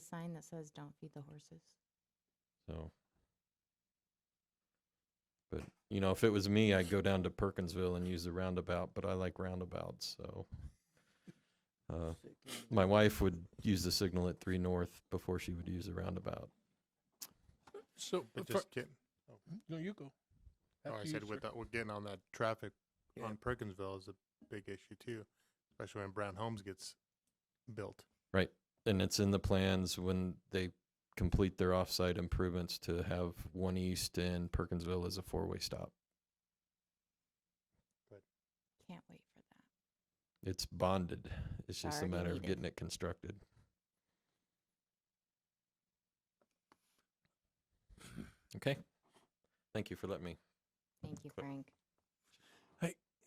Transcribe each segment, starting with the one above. sign that says "Don't feed the horses." So, but you know, if it was me, I'd go down to Perkinsville and use the roundabout. But I like roundabouts, so uh, my wife would use the signal at three north before she would use the roundabout. So, But for- just getting, no, you go. oh, I After you, said sir. with that, we're getting on that traffic Yeah. on Perkinsville is a big issue too, especially when Brown Homes gets built. And it's in the plans when they complete their offsite improvements to have one east and Perkinsville as a four-way stop. Can't wait for that. It's bonded. It's just a Already matter of needed. getting it constructed. Okay. Thank you for letting me. Thank you, But- Frank.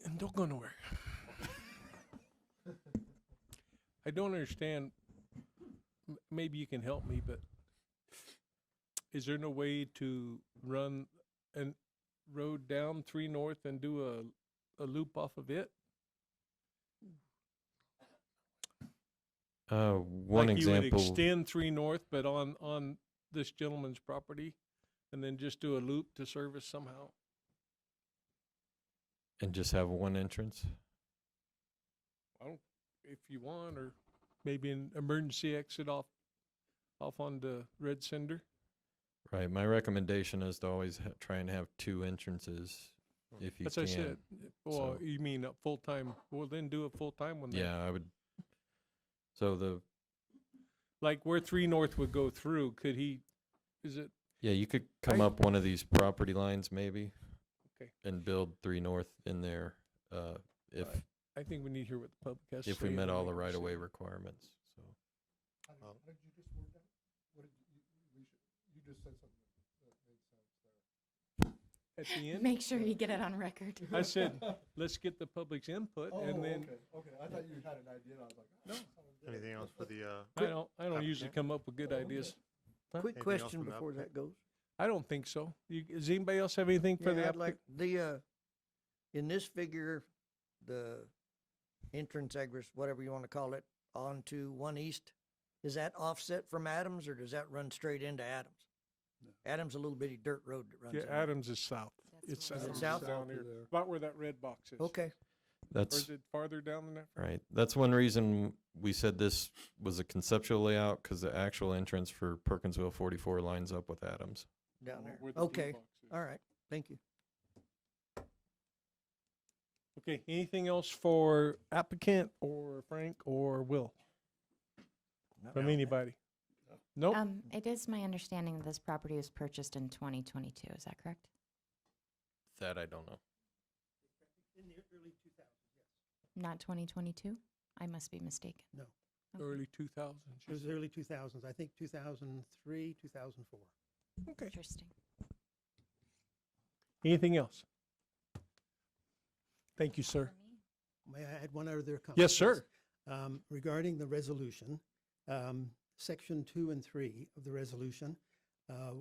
and don't go nowhere. I don't understand. m- Maybe you can help me, but is there no way to run an road down three north and do a a loop off of it? Uh, one like You would example. extend three north, but on on this gentleman's property, and then just do a loop to service somehow. and just have one entrance. if you want, or maybe an emergency exit off, off onto Red Cinder. Right. My recommendation is to always ha- try and have two entrances if you As can. Hmm. I said, well, so- you mean a full-time, well, then do a full-time one. then. Yeah, I would. So the Like where Three North would go through, could he, is it, yeah, you could come I- up one of these property lines maybe. Okay. And build three north in there, uh, if Right. I think we need to hear what the public has to say. if we and met then all we the can right see. of way requirements. So Um, At the end, Make sure you get it on record. I said, let's get the public's input Oh, and then, Anything else for the, uh, I don't, I don't usually Applicant? come up with good Oh, ideas. Quick Anything else question from the before applicant? that goes. I don't think so. You, does anybody else have anything for the Yeah, I'd applicant? like the, uh, in this figure, the entrance egress, whatever you want to call it, onto One East, is that offset from Adams or does that run straight into Adams? Adams a little bitty dirt road that runs. Yeah, in there. Adams is south. That's It's where it is. Adams is South? down here, about where that red box is. Okay, Or that's is it farther down than that? Right. That's one reason we said this was a conceptual layout because the actual entrance for Perkinsville 44 lines up with Adams. down there. Where the blue Okay, box is. all right, thank you. Uh, Okay, anything else for applicant or Frank or Will, from anybody? Nope, Um, it is my understanding that this property was purchased in 2022. Is that correct? That I don't know. Not 2022. I must be mistaken. No. Okay. early two thousands. It was early 2000s, I think 2003, 2004. Okay, Interesting. anything else? Thank you, sir. May I add one other comment? Yes, please? sir. Um, Regarding the resolution, um, section two and three of the resolution, uh,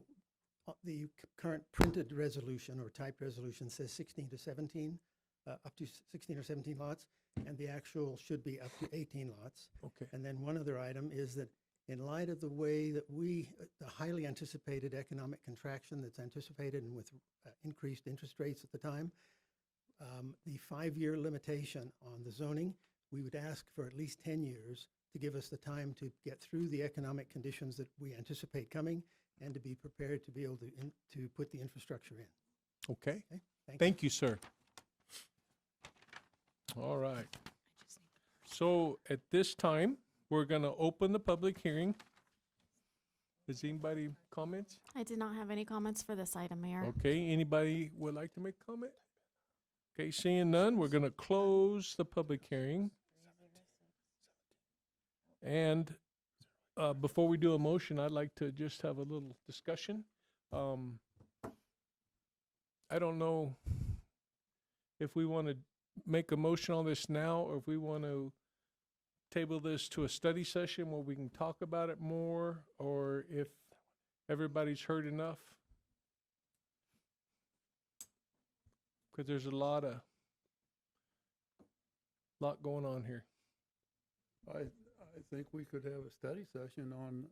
uh, the c- current printed resolution or typed resolution says 16 to 17, uh, up to s- 16 or 17 lots, and the actual should be up to 18 lots. Okay, And then one other item is that in light of the way that we, the highly anticipated economic contraction that's anticipated and with uh, increased interest rates at the time, um, the five-year limitation on the zoning, we would ask for at least 10 years to give us the time to get through the economic conditions that we anticipate coming and to be prepared to be able to, in- to put the infrastructure in. okay, Okay? Thank you. thank you, sir. All right, I just need- so at this time, we're gonna open the public hearing. Does anybody comments? I did not have any comments for this item, Mayor. Okay, anybody would like to make a comment? Okay, seeing none, we're gonna close the public hearing. And, uh, before we do a motion, I'd like to just have a little discussion. Um, I don't know if we wanna make a motion on this now, or if we wanna table this to a study session where we can talk about it more, or if everybody's heard enough. because there's a lot of lot going on here. I, I think we could have a study session on